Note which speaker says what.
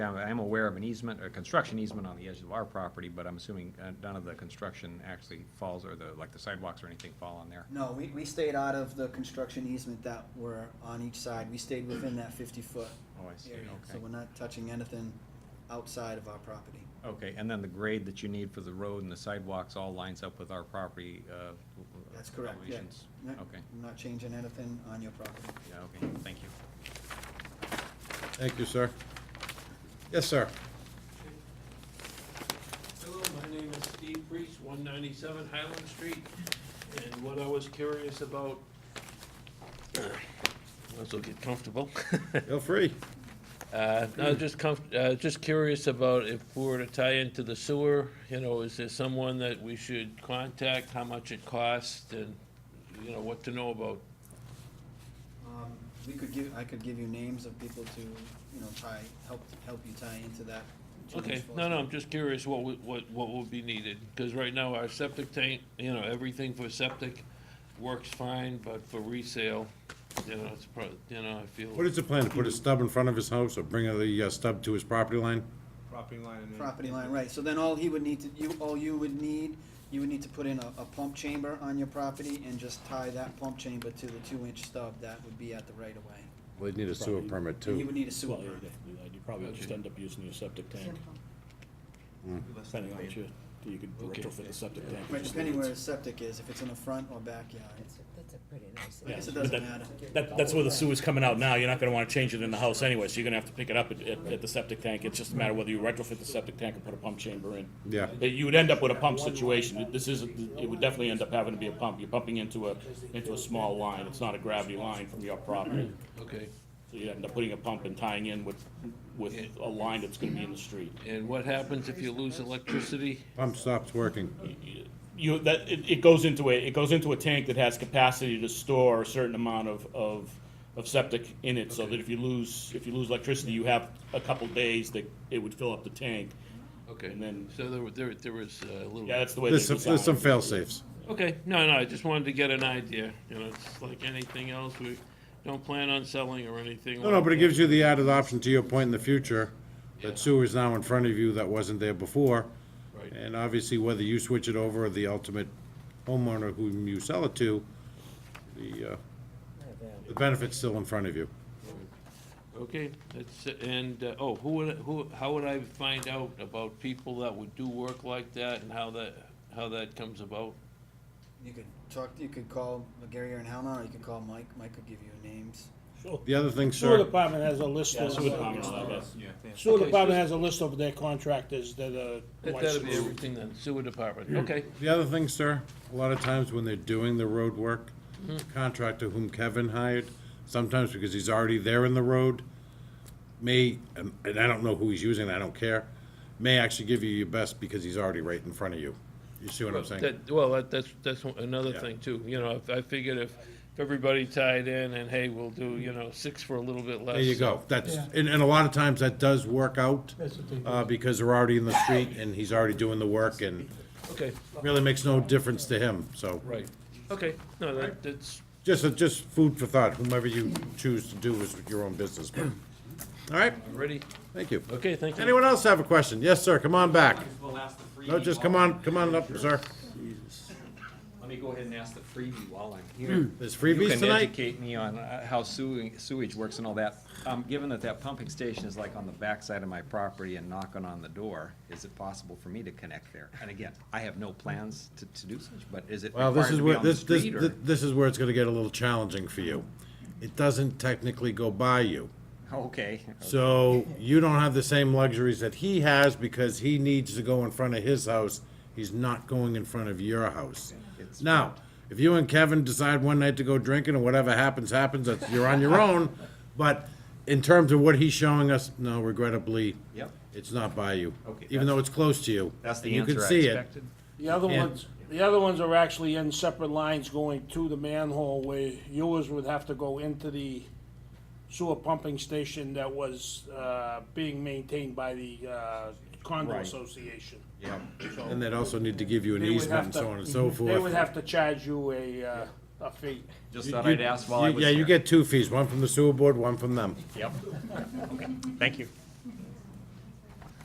Speaker 1: Now, I'm aware of an easement, a construction easement on the edge of our property, but I'm assuming uh, none of the construction actually falls, or the, like the sidewalks or anything fall on there.
Speaker 2: No, we, we stayed out of the construction easement that were on each side. We stayed within that fifty foot
Speaker 1: Oh, I see,
Speaker 2: area. So
Speaker 1: okay.
Speaker 2: we're not touching anything outside of our property.
Speaker 1: Okay, and then the grade that you need for the road and the sidewalks all lines up with our property, uh. l- l-
Speaker 2: That's correct, yeah.
Speaker 1: elevations.
Speaker 2: No,
Speaker 1: Okay,
Speaker 2: I'm not changing anything on your property.
Speaker 1: yeah, okay, thank you.
Speaker 3: Thank you, sir. Yes, sir.
Speaker 4: Hello, my name is Steve Priest, one ninety-seven Highland Street, and what I was curious about, let's look get comfortable.
Speaker 3: Feel free.
Speaker 4: Uh, I was just comf- uh, just curious about if we were to tie into the sewer, you know, is there someone that we should contact, how much it costs, and, you know, what to know about?
Speaker 2: Um, We could give, I could give you names of people to, you know, try, help, help you tie into that. change
Speaker 4: Okay,
Speaker 2: for
Speaker 4: no, no,
Speaker 2: us.
Speaker 4: I'm just curious what, would- what, what will be needed, because right now our septic tank, you know, everything for septic works fine, but for resale, you know, it's probably, you know, I feel.
Speaker 3: What is the plan, to put a stub in front of his house or bring the uh, stub to his property line?
Speaker 5: Property line and then.
Speaker 2: Property line, right, so then all he would need to, you, all you would need, you would need to put in a, a pump chamber on your property and just tie that pump chamber to the two inch stub that would be at the right of way.
Speaker 3: Well, they'd need a sewer permit
Speaker 2: And you
Speaker 3: too.
Speaker 2: would need a sewer
Speaker 6: Well, you
Speaker 2: permit.
Speaker 6: you probably would just end up using your septic tank,
Speaker 5: Less than
Speaker 6: depending on what you, you could
Speaker 4: Okay.
Speaker 6: retrofit the septic tank.
Speaker 2: Right, depending where his septic is, if it's in the front or backyard.
Speaker 7: That's, that's a pretty nice.
Speaker 2: I guess it
Speaker 6: Yeah, but
Speaker 2: doesn't
Speaker 6: that-
Speaker 2: matter.
Speaker 6: That, that's where the sewer's coming out now, you're not gonna wanna change it in the house anyway, so you're gonna have to pick it up at, at, at the septic tank, it's just a matter whether you retrofit the septic tank or put a pump chamber in.
Speaker 3: Yeah.
Speaker 6: Uh, You would end up with a pump situation, this is, it would definitely end up having to be a pump, you're pumping into a, into a small line, it's not a gravity line from your property.
Speaker 4: Okay,
Speaker 6: So you end up putting a pump and tying in with, with a line that's gonna be in the street.
Speaker 4: and what happens if you lose electricity?
Speaker 3: Pump stops working.
Speaker 6: you that it, it goes into a it goes into a tank that has capacity to store a certain amount of of, of septic in it, so that if you lose if you lose electricity, you have a couple days that it would fill up the tank.
Speaker 4: Okay.
Speaker 6: And then-
Speaker 4: So there, were- there, there was a little.
Speaker 6: Yeah, that's the way.
Speaker 3: There's
Speaker 6: they
Speaker 3: some, there's some
Speaker 6: designed it.
Speaker 3: fail-safes.
Speaker 4: Okay, no, no, I just wanted to get an idea, you know, it's like anything else, we don't plan on selling or anything.
Speaker 3: No, no,
Speaker 4: like
Speaker 3: but it
Speaker 4: that.
Speaker 3: gives you the added option to your point in the future, that sewer is now in front of you that wasn't there before.
Speaker 4: Right.
Speaker 3: And obviously, whether you switch it over or the ultimate homeowner whom you sell it to, the, uh, the benefit's still in front of you.
Speaker 4: Okay, that's, and, uh, oh, who would, who, how would I find out about people that would do work like that and how that, how that comes about?
Speaker 2: You could talk, you could call Gary and Helmer, or you could call Mike, Mike could give you names.
Speaker 3: The other thing,
Speaker 8: Sewer
Speaker 3: sir,
Speaker 8: department has a list
Speaker 6: Yeah,
Speaker 8: of,
Speaker 6: sewer department, I guess.
Speaker 5: Yeah, yeah.
Speaker 8: sewer
Speaker 4: Okay,
Speaker 8: department
Speaker 4: so-
Speaker 8: has a list of their contractors that are
Speaker 4: That- That'll be
Speaker 8: licensed.
Speaker 4: everything then, sewer department, okay,
Speaker 3: the other thing, sir, a lot of times when they're doing the road work, the
Speaker 4: Hmm.
Speaker 3: contractor whom Kevin hired, sometimes because he's already there in the road, may, and and I don't know who he's using, I don't care, may actually give you your best because he's already right in front of you. You see what I'm saying?
Speaker 4: that, well, that- that's, that's one- another
Speaker 3: Yeah.
Speaker 4: thing too, you know, if- I figured if everybody tied in and hey, we'll do, you know, six for a little bit less.
Speaker 3: There you go. That's, and, and a lot of times that does work out, uh, because they're already in the street and he's already doing the work and
Speaker 4: Okay,
Speaker 3: really makes no difference to him, so.
Speaker 4: right, okay, no, that, that's,
Speaker 3: Just, just food for thought, whomever you choose to do is your own business. but- All right,
Speaker 4: ready,
Speaker 3: thank you.
Speaker 4: okay, thank you.
Speaker 3: Anyone else have a question? Yes, sir, come on back. No, just come on, come on up, sir.
Speaker 1: Let me go ahead and ask the freebie while I'm here.
Speaker 3: There's
Speaker 1: You
Speaker 3: freebies
Speaker 1: can
Speaker 3: tonight?
Speaker 1: educate me on uh, how sewing- sewage works and all that. Um, Given that that pumping station is like on the backside of my property and knocking on the door, is it possible for me to connect there? And again, I have no plans to, to do such, but is it
Speaker 3: Well,
Speaker 1: required
Speaker 3: this
Speaker 1: to be
Speaker 3: is where,
Speaker 1: on the
Speaker 3: this, this,
Speaker 1: street or?
Speaker 3: thi- this is where it's gonna get a little challenging for you. It doesn't technically go by you.
Speaker 1: Okay,
Speaker 3: So you don't have the same luxuries that he has because he needs to go in front of his house. He's not going in front of your house.
Speaker 1: It's-
Speaker 3: Now, if you and Kevin decide one night to go drinking and whatever happens, happens, that's, you're on your own. But in terms of what he's showing us, no, regrettably,
Speaker 1: Yep.
Speaker 3: it's not by you.
Speaker 1: Okay,
Speaker 3: Even though it's close to you.
Speaker 1: that's
Speaker 3: and
Speaker 1: the
Speaker 3: you can
Speaker 1: answer I
Speaker 3: see it.
Speaker 1: expected.
Speaker 8: The other
Speaker 3: Yeah.
Speaker 8: ones, the other ones are actually in separate lines going to the manhole where yours would have to go into the sewer pumping station that was, uh, being maintained by the, uh, condo
Speaker 1: Right.
Speaker 8: association.
Speaker 3: Yeah. And they'd also need to give you an
Speaker 8: They would
Speaker 3: easement
Speaker 8: have
Speaker 3: and
Speaker 8: to-
Speaker 3: so on and so forth.
Speaker 8: They would have to charge you a, uh, a fee.
Speaker 1: Just
Speaker 3: You-
Speaker 1: thought
Speaker 3: you-
Speaker 1: I'd ask while I
Speaker 3: you-
Speaker 1: was
Speaker 3: Yeah, you
Speaker 1: there.
Speaker 3: get two fees, one from the sewer board, one from them.
Speaker 1: Yep. Okay, Thank you.